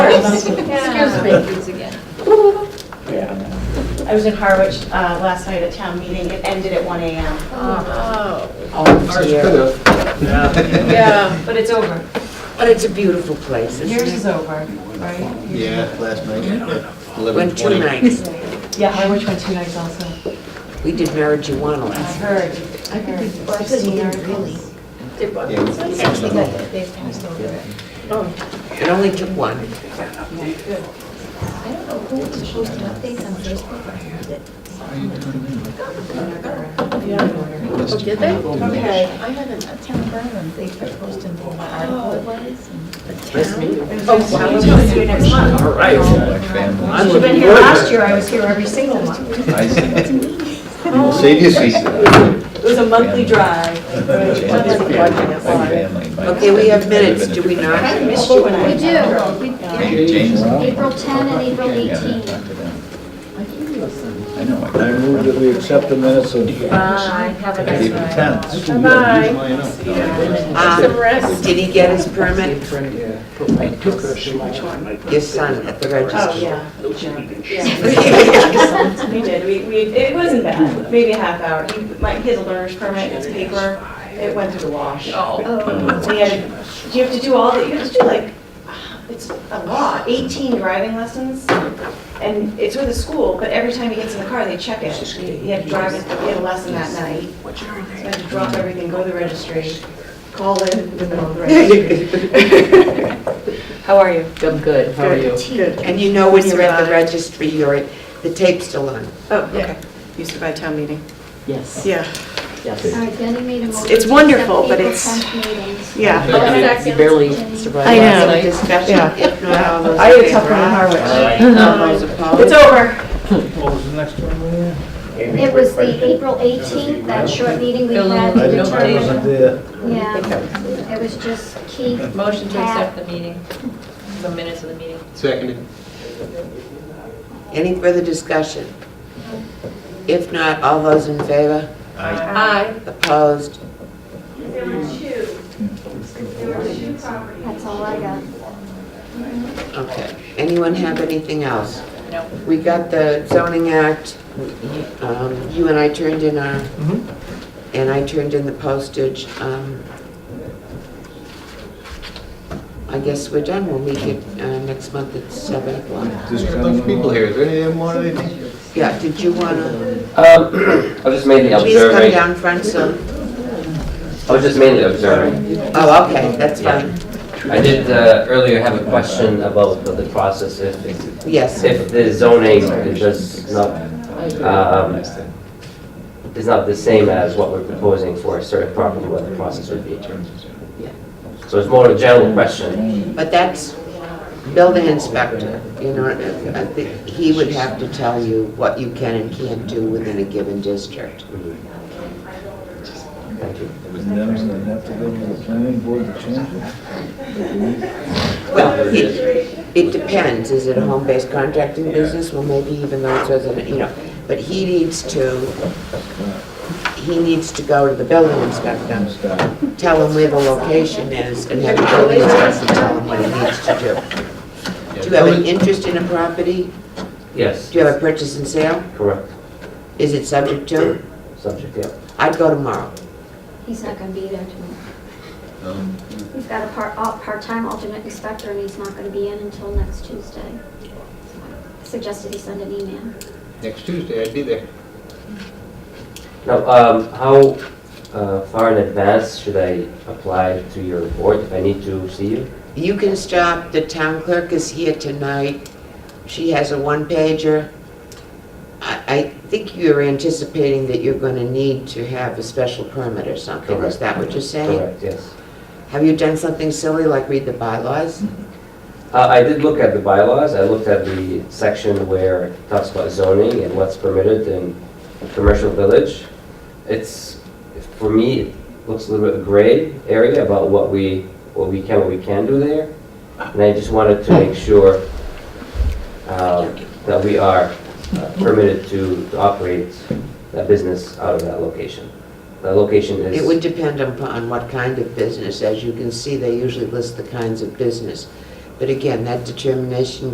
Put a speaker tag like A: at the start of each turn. A: Excuse me.
B: Excuse me.
C: Yeah.
D: I was in Harwich uh, last night at town meeting. It ended at 1 AM.
E: Uh,
A: Oh,
C: Ours could've.
A: yeah,
D: But it's over.
F: But it's a beautiful place, isn't
D: Yours is
F: it?
D: over, right?
G: Yeah, last night, eleven
F: Went two
G: twenty.
F: nights.
D: Yeah, Harwich went two nights also.
F: We did marijuana
D: I
F: last.
D: heard. I
E: Well, I said you didn't really.
A: did what?
G: Yeah, we-
E: Actually, they- they passed over it.
A: Oh,
F: It only took one.
E: I don't know who was posting updates on Facebook, but I heard that
A: oh, did they?
E: Okay,
A: Okay.
E: I had a a town Berlin, they kept posting for my article it was. and The town.
A: Oh, wow.
D: We'll do it next month.
C: All right.
G: Black family.
C: I'm
D: You've been
C: looking
D: here
C: forward to
D: last
C: it.
D: year, I was here every single month.
G: I see. Save your seats.
D: It was a monthly drive.
F: Okay, we have minutes, do we not?
D: I missed you when I.
B: We do. We- yeah.
G: James.
B: April 10 and April 18.
G: I know. I
H: I move that we accept the minutes of
D: Bye, have a nice
G: April
D: night.
G: tenth.
F: Um,
A: Some rest.
F: Did he get his permit?
C: I took her, she was on my-
F: Your son at the
D: Oh,
F: register.
D: yeah. We did, we, we, it wasn't bad, maybe a half hour. He, my, he has a learner's permit, it's paper, it went through the wash.
A: Oh.
D: So he had, to- you have to do all, the- you have to do like, it's a lot, 18 driving lessons, and it's with a school, but every time he gets in the car, they check it. He had to drive, it- he had a lesson that night, so he had to drop everything, go to the registry, call in, in the middle of the registry. How are you?
I: I'm good, how are you?
A: Good.
F: And you know when you're at the registry, you're, at- the tape's still on.
A: Oh, okay. Used to buy town meeting.
I: Yes,
A: Yeah,
I: yes.
B: All right, Denny made a motion.
A: it's
B: to
A: wonderful,
B: accept
A: but
B: April
A: it's-
B: 10th meetings.
A: yeah.
I: You barely survived
A: I
I: last
A: know.
I: night.
F: Discussion,
A: Yeah.
F: if not, all those
D: I had a
F: in Uh-huh.
D: tough
F: favor,
D: one in
F: aye.
D: Harwich.
A: Um,
F: All those
D: It's
F: opposed?
D: over.
H: What was the next one, Maria?
B: It was the April 18th, that short meeting we had.
H: I
B: to
H: didn't, I wasn't
B: determine-
H: there.
B: Yeah, it was just Keith.
E: Motion
B: to accept
E: the meeting, the minutes of the meeting.
G: Seconded.
F: Any further discussion? If not, all those in favor?
G: Aye.
A: Aye.
F: Opposed?
D: There were two, there were two properties.
B: That's all I got.
F: Okay. Anyone have anything else? No. We got the zoning act, um, you and I turned in our, and I turned in the postage. um, I guess we're done, we'll meet you uh, next month at seven o'clock.
G: There's a bunch of people here, is there any of them want anything?
F: Yeah, did you wanna,
J: Um, I was just mainly
F: please come
J: observing.
F: down front so,
J: I was just mainly observing.
F: oh, okay, that's fine,
J: I did uh, earlier have a question about the the process if,
F: yes.
J: if the zoning is just not, um, is not the same as what we're proposing for a certain property, what the process would be. So it's more a general question.
F: But that's building inspector, you know, I think he would have to tell you what you can and can't do within a given district.
J: Thank you.
H: It was them, so they have to go to the planning board to change it.
F: Well, it, it depends, is it a home-based contracting business, well, maybe even though it's resident, you know, but he needs to, he needs to go to the building inspector, tell him where the location is, and have the building inspector tell him what he needs to do. Do you have an interest in a property?
J: Yes,
F: Do you have a purchase and sale?
J: correct,
F: Is it subject to?
J: subject, yeah.
F: I'd go tomorrow.
B: He's not going to be there tomorrow.
G: Um,
B: He's got a part, al- part-time alternate inspector, and he's not going to be in until next Tuesday. So I Suggested he send an email.
G: Next Tuesday, I'd be there.
J: Now, um, how uh, far in advance should I apply to your board if I need to see you?
F: You can stop, the town clerk is here tonight. She has a one pager. I, I think you're anticipating that you're gonna need to have a special permit or something, is
J: Correct.
F: that what you're saying?
J: Correct, yes.
F: Have you done something silly like read the bylaws?
J: Uh, I did look at the bylaws, I looked at the section where it talks about zoning and what's permitted in commercial village. It's, for me, it looks a little bit gray area about what we, what we can, what we can do there. And I just wanted to make sure um, that we are uh, permitted to to operate that business out of that location. That location is.
F: It would depend upon what kind of business, as you can see, they usually list the kinds of business. But again, that determination